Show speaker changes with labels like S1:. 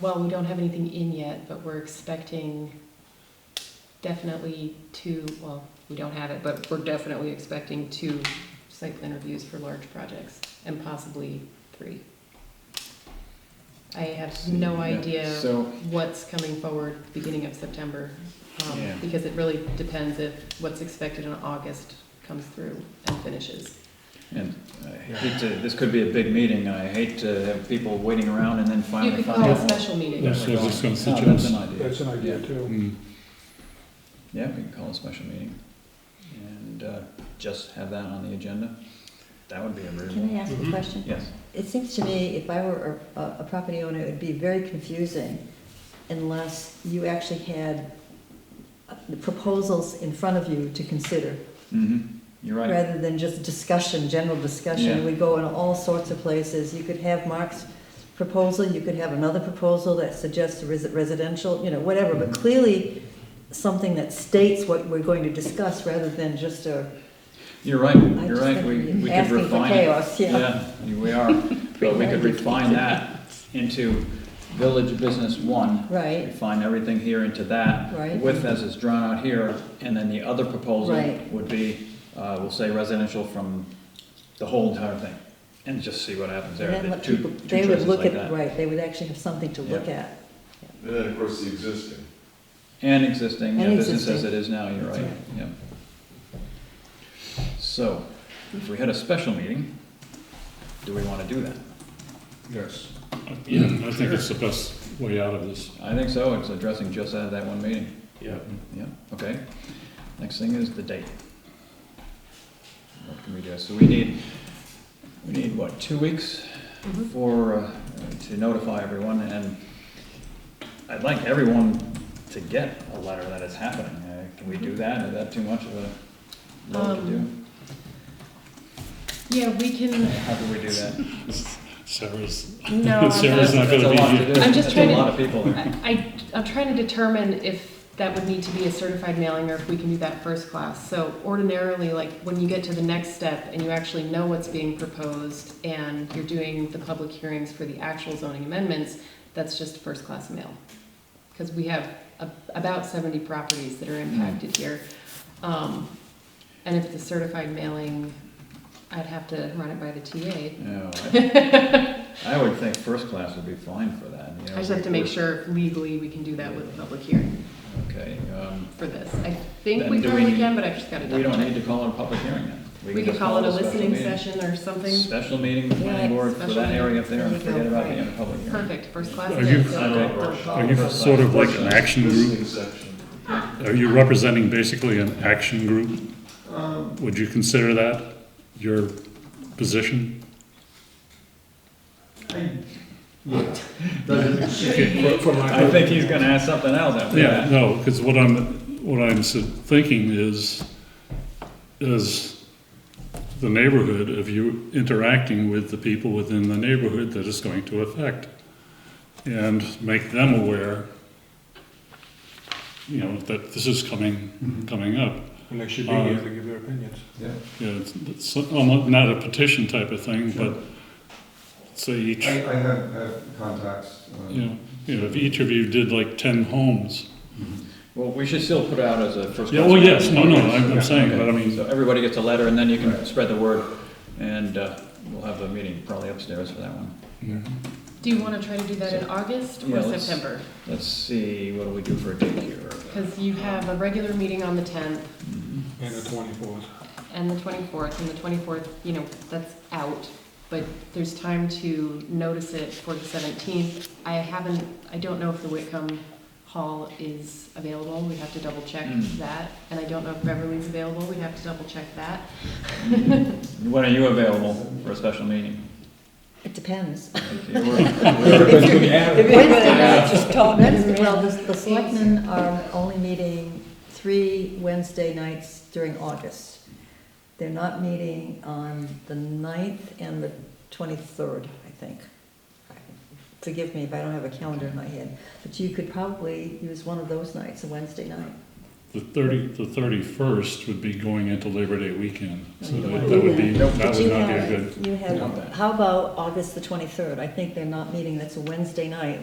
S1: Well, we don't have anything in yet, but we're expecting definitely two, well, we don't have it, but we're definitely expecting two site plan reviews for large projects and possibly three. I have no
S2: Yeah,
S1: idea
S2: So,
S1: what's coming forward beginning of September. um,
S2: Yeah.
S1: Because it really depends if what's expected in August comes through and finishes.
S2: and I hate to, this could be a big meeting, and I hate to have people waiting around and then
S1: You
S2: finally
S1: could
S2: find
S1: call
S2: out.
S1: a special meeting.
S3: Yes, I was just gonna
S2: Oh, That's
S3: suggest.
S2: an idea.
S4: That's an idea too.
S3: Mm.
S2: Yeah, we can call a special meeting and uh, just have that on the agenda. That would be a
S5: Can
S2: reasonable.
S5: I ask a
S3: Mhm.
S5: question?
S2: Yes,
S5: It seems to me, if I were a, a property owner, it would be very confusing unless you actually had uh, the proposals in front of you to consider,
S2: mhm, you're right.
S5: rather than just discussion, general
S2: Yeah.
S5: discussion. We go in all sorts of places. You could have Mark's proposal, you could have another proposal that suggests a resi- residential, you know, whatever, but
S2: Mhm.
S5: clearly something that states what we're going to discuss, rather than just a,
S2: You're right,
S5: I
S2: you're
S5: just
S2: right,
S5: think
S2: we,
S5: we're
S2: we could
S5: asking for
S2: refine it.
S5: chaos, yeah.
S2: we are, but we could refine that into village business one.
S5: Right.
S2: Refine everything here into that.
S5: Right.
S2: With as it's drawn out here, and then the other proposal
S5: Right.
S2: would be, uh, we'll say residential from the whole entire thing, and just see what happens there.
S5: then
S2: The
S5: let
S2: two-
S5: people,
S2: two
S5: they would
S2: choices
S5: look
S2: like
S5: at,
S2: that.
S5: right, they would actually have something to look
S2: Yeah.
S5: at.
S6: And then, of course, the existing.
S2: And existing, yeah,
S5: And
S2: business as
S5: existing.
S2: it is now, you're right,
S5: That's
S2: yeah. So, if we had a special meeting, do we wanna do that?
S4: Yes.
S3: Yeah, I think it's the best way out of this.
S2: I think so, it's addressing just out of that one meeting.
S3: Yeah.
S2: Yeah, okay. Next thing is the date. What can we do? So we need, we need what, two weeks
S1: Mhm.
S2: for, uh, to notify everyone and I'd like everyone to get a letter that it's happening. Uh, Can we
S1: Mm-hmm.
S2: do that? Is that too much of a load to
S1: Um,
S2: do?
S1: Yeah, we can,
S2: How do we do that?
S3: Sarah's,
S1: no, I'm not.
S3: Sarah's not
S2: That's a
S3: gonna
S2: lot
S3: be
S2: to
S3: here.
S2: do.
S1: I'm just
S2: That's
S1: trying
S2: a
S1: to-
S2: lot of people.
S1: I, I- I'm trying to determine if that would need to be a certified mailing or if we can do that first class. So ordinarily, like, when you get to the next step and you actually know what's being proposed and you're doing the public hearings for the actual zoning amendments, that's just first class mail. Because we have a- about 70 properties that are impacted here. Um, And if it's a certified mailing, I'd have to run it by the TA.
S2: No, I- I would think first class would be fine for that, you know.
S1: I just have to make sure legally we can do that with a public hearing.
S2: Okay, um,
S1: for this. I think
S2: Then
S1: we
S2: do
S1: probably
S2: we-
S1: can, but I've just got to
S2: we
S1: double
S2: don't need
S1: check.
S2: to call it a public hearing then.
S1: We
S2: can
S1: could
S2: just
S1: call it a
S2: special
S1: listening
S2: meeting.
S1: session or something.
S2: Special meeting, with the planning
S5: Yeah,
S2: board for
S1: special
S2: that area up there and
S5: meeting.
S2: forget about
S5: Right.
S2: the public hearing.
S1: Perfect, first class.
S3: Are
S1: it
S3: you-
S1: is.
S6: I don't know.
S3: are you sort of like an action group?
S6: Existing section.
S3: Are you representing basically an action group? Would you consider that your position?
S6: Doesn't change.
S4: For- for my-
S2: I think he's gonna ask something else after
S3: Yeah,
S2: that.
S3: no, because what I'm, what I'm su- thinking is, is the neighborhood of you interacting with the people within the neighborhood that is going to affect. And make them aware, you know, that this is
S7: Mm-hmm.
S3: coming, coming up.
S4: And they should be here to give their opinions.
S3: Yeah, it's, it's almost not a petition type of thing, but say each,
S7: I, I have, have contacts. um,
S3: you know, you know, if each of you did like ten homes.
S2: Well, we should still put out as a first class.
S3: Yeah, well, yes, no, no,
S2: meeting.
S3: I'm, I'm saying,
S2: Okay,
S3: but I mean,
S2: So everybody gets a letter and then you can
S7: Right.
S2: spread the word and, uh, we'll have a meeting probably upstairs for that one.
S1: Do you want to try to do that in August
S2: Yeah,
S1: or
S2: let's-
S1: September?
S2: Let's see, what do we do for a date here?
S1: Because you have a regular meeting on the 10th
S4: And the twenty-fourth.
S1: and the 24th, and the 24th, you know, that's out. But there's time to notice it for the 17th. I haven't, I don't know if the Whitcomb Hall is available. We have to double check
S2: Mm.
S1: that. And I don't know if Beverly's available. We have to double check that.
S2: When are you available for a special meeting?
S5: It depends. That's- Well, the, the selectmen are only meeting three Wednesday nights during August. They're not meeting on the 9th and the twenty-third, I think. Forgive me if I don't have a calendar in my head, but you could probably use one of those nights, a Wednesday night.
S3: the thirty, the thirty-first would be going into Labor Day weekend. So
S5: You
S3: that
S5: don't
S3: that would
S5: do
S3: be,
S2: Nope.
S3: that
S5: But
S3: would
S5: you
S3: not be a
S5: have-
S3: good.
S5: You
S2: Not bad.
S5: have, how about August the twenty-third? I think they're not meeting, that's a Wednesday night.